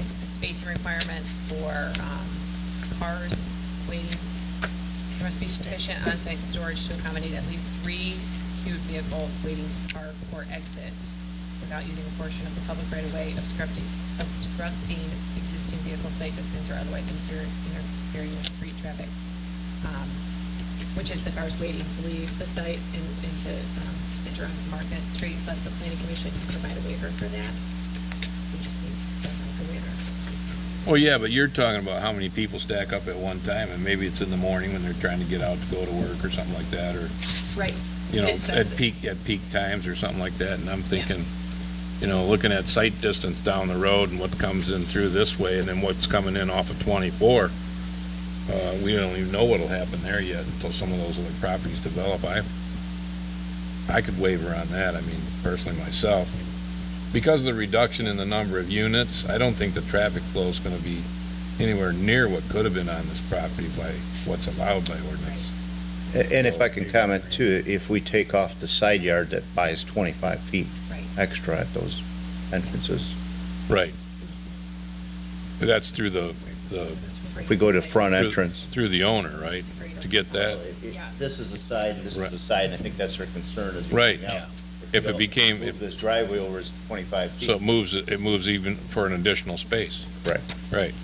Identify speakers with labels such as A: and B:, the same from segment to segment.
A: it's the spacing requirements for um, cars waiting. There must be sufficient on-site storage to accommodate at least three queued vehicles waiting to park or exit without using a portion of the public right-of-way obstructing, obstructing existing vehicle sight distance or otherwise interfere- interfering with street traffic. Um, Which is the cars waiting to leave the site and and to um, enter onto Market Street, but the planning commission can provide a waiver for that. We just need to provide the waiver.
B: Well, Oh, yeah, but you're talking about how many people stack up at one time, and maybe it's in the morning when they're trying to get out to go to work or something like that, or,
A: Right.
B: you know,
A: It says
B: at
A: it.
B: peak, at peak times or something like that, and I'm thinking, you know, looking at sight distance down the road and what comes in through this way, and then what's coming in off of twenty-four, uh, we don't even know what'll happen there yet until some of those other properties develop. I, I could waver on that, I mean, personally myself. Because of the reduction in the number of units, I don't think the traffic flow is gonna be anywhere near what could have been on this property by what's allowed by ordinance.
C: A- And if I can comment too, if we take off the side yard, that buys 25 feet
A: Right.
C: extra at those entrances.
B: Right. That's through the, the,
C: If we go to front entrance.
B: through the owner, right? To get that,
A: Yeah.
C: This is the side, and this
B: Right.
C: is the side, and I think that's their concern is.
B: Right.
C: Yeah.
B: If it became-
C: Move this driveway over is 25 feet.
B: so it moves, it moves even for an additional space.
C: Right.
B: Right.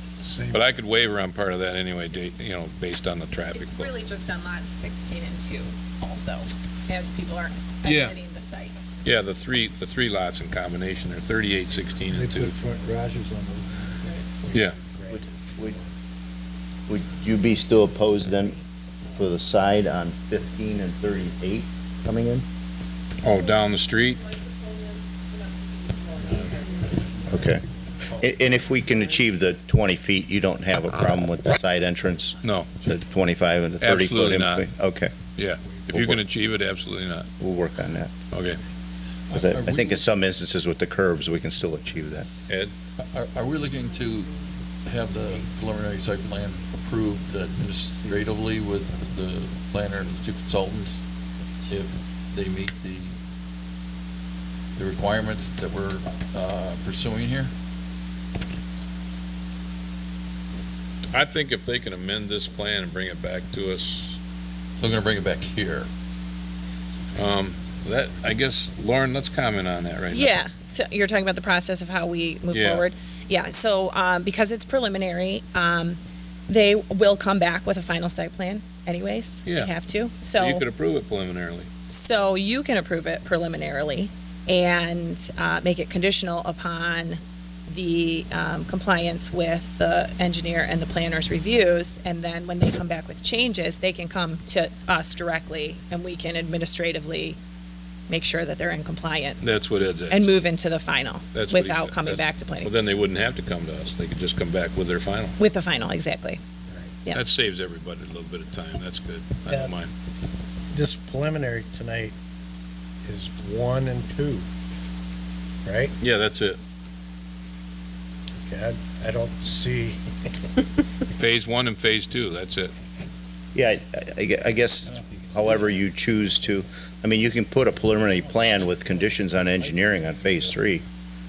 B: But I could waver on part of that anyway, da- you know, based on the traffic
A: It's
B: flow.
A: really just on lots sixteen and two also, as people are
B: Yeah.
A: exiting the site.
B: Yeah, the three, the three lots in combination are thirty-eight, sixteen,
D: They
B: and two.
D: put front garages on those.
B: Yeah.
C: Would- Would would you be still opposed then for the side on 15 and 38 coming in?
B: Oh, down the street?
C: Okay. A- And if we can achieve the 20 feet, you don't have a problem with the side entrance?
B: No.
C: The 25 and the 30 foot?
B: Absolutely
C: in
B: not.
C: between? Okay,
B: If you can achieve it, absolutely not.
C: we'll work on that.
B: Okay.
C: 'Cause I I think in some instances with the curves, we can still achieve that.
E: Are, are we looking to have the preliminary site plan approved administratively with the planner and the two consultants if they meet the, the requirements that we're uh, pursuing here?
B: I think if they can amend this plan and bring it back to us,
E: So I'm gonna bring it back here.
B: um, that, I guess, Lauren, let's comment on that right now.
A: Yeah, so you're talking about the process of how we move
B: Yeah.
A: forward? Yeah, so, um, because it's preliminary, um, they will come back with a final site plan anyways.
B: Yeah.
A: They have to,
B: You
A: so,
B: could approve it preliminarily.
A: so you can approve it preliminarily and, uh, make it conditional upon the, um, compliance with the engineer and the planner's reviews. And then when they come back with changes, they can come to us directly and we can administratively make sure that they're in compliance
B: That's what Ed's at.
A: and move into the final
B: That's what he-
A: without coming
B: that's-
A: back to
B: Well,
A: planning,
B: then they wouldn't have to come to us. They could just come back with their final.
A: with the final, exactly. Yeah.
B: That saves everybody a little bit of time. That's good. I
D: Yeah.
B: don't mind.
D: This preliminary tonight is one and two, right?
B: Yeah, that's it.
D: God, I don't see,
B: Phase one and phase two, that's it.
C: Yeah, I- I gue- I guess however you choose to, I mean, you can put a preliminary plan with conditions on engineering on phase three.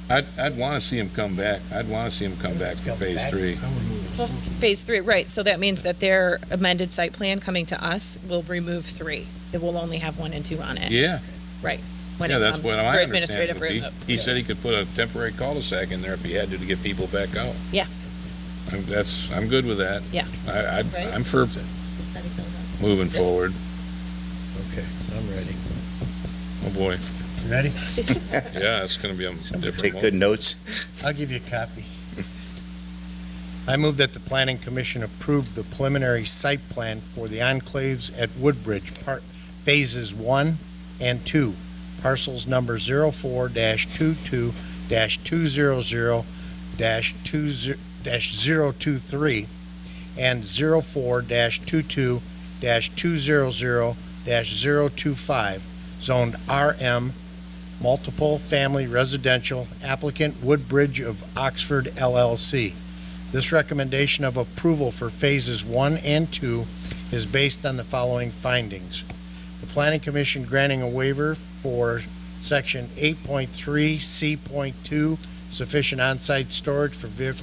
B: I'd, I'd want to see him come back. I'd want to see him come back for phase three.
D: I would move
A: Well, phase three, right, so that means that their amended site plan coming to us will remove three. It will only have one and two on it
B: Yeah,
A: when it
B: yeah, that's
A: comes for
B: what I understand.
A: administrative
B: it would be.
A: review.
B: He said he could put a temporary cul-de-sac in there if he had to to get people back out.
A: Yeah.
B: I'm, that's, I'm good with that.
A: Yeah.
B: I, I'd-
A: Right?
B: I'm for moving forward.
D: Okay, I'm ready.
B: Oh, boy.
D: You Ready?
B: Yeah, it's going to be a
C: Somebody
B: different
C: take
B: one.
C: good notes.
D: I'll give you a copy. I move that the planning commission approve the preliminary site plan for the enclaves at Woodbridge, part, phases one and two, parcels number zero four dash two two dash two zero zero dash two zero, dash zero two three, and zero four dash two two dash two zero zero dash zero two five, zoned RM multiple family residential applicant Woodbridge of Oxford LLC. This recommendation of approval for phases one and two is based on the following findings. The planning commission granting a waiver for section eight point three C point two, sufficient on-site storage for vehicle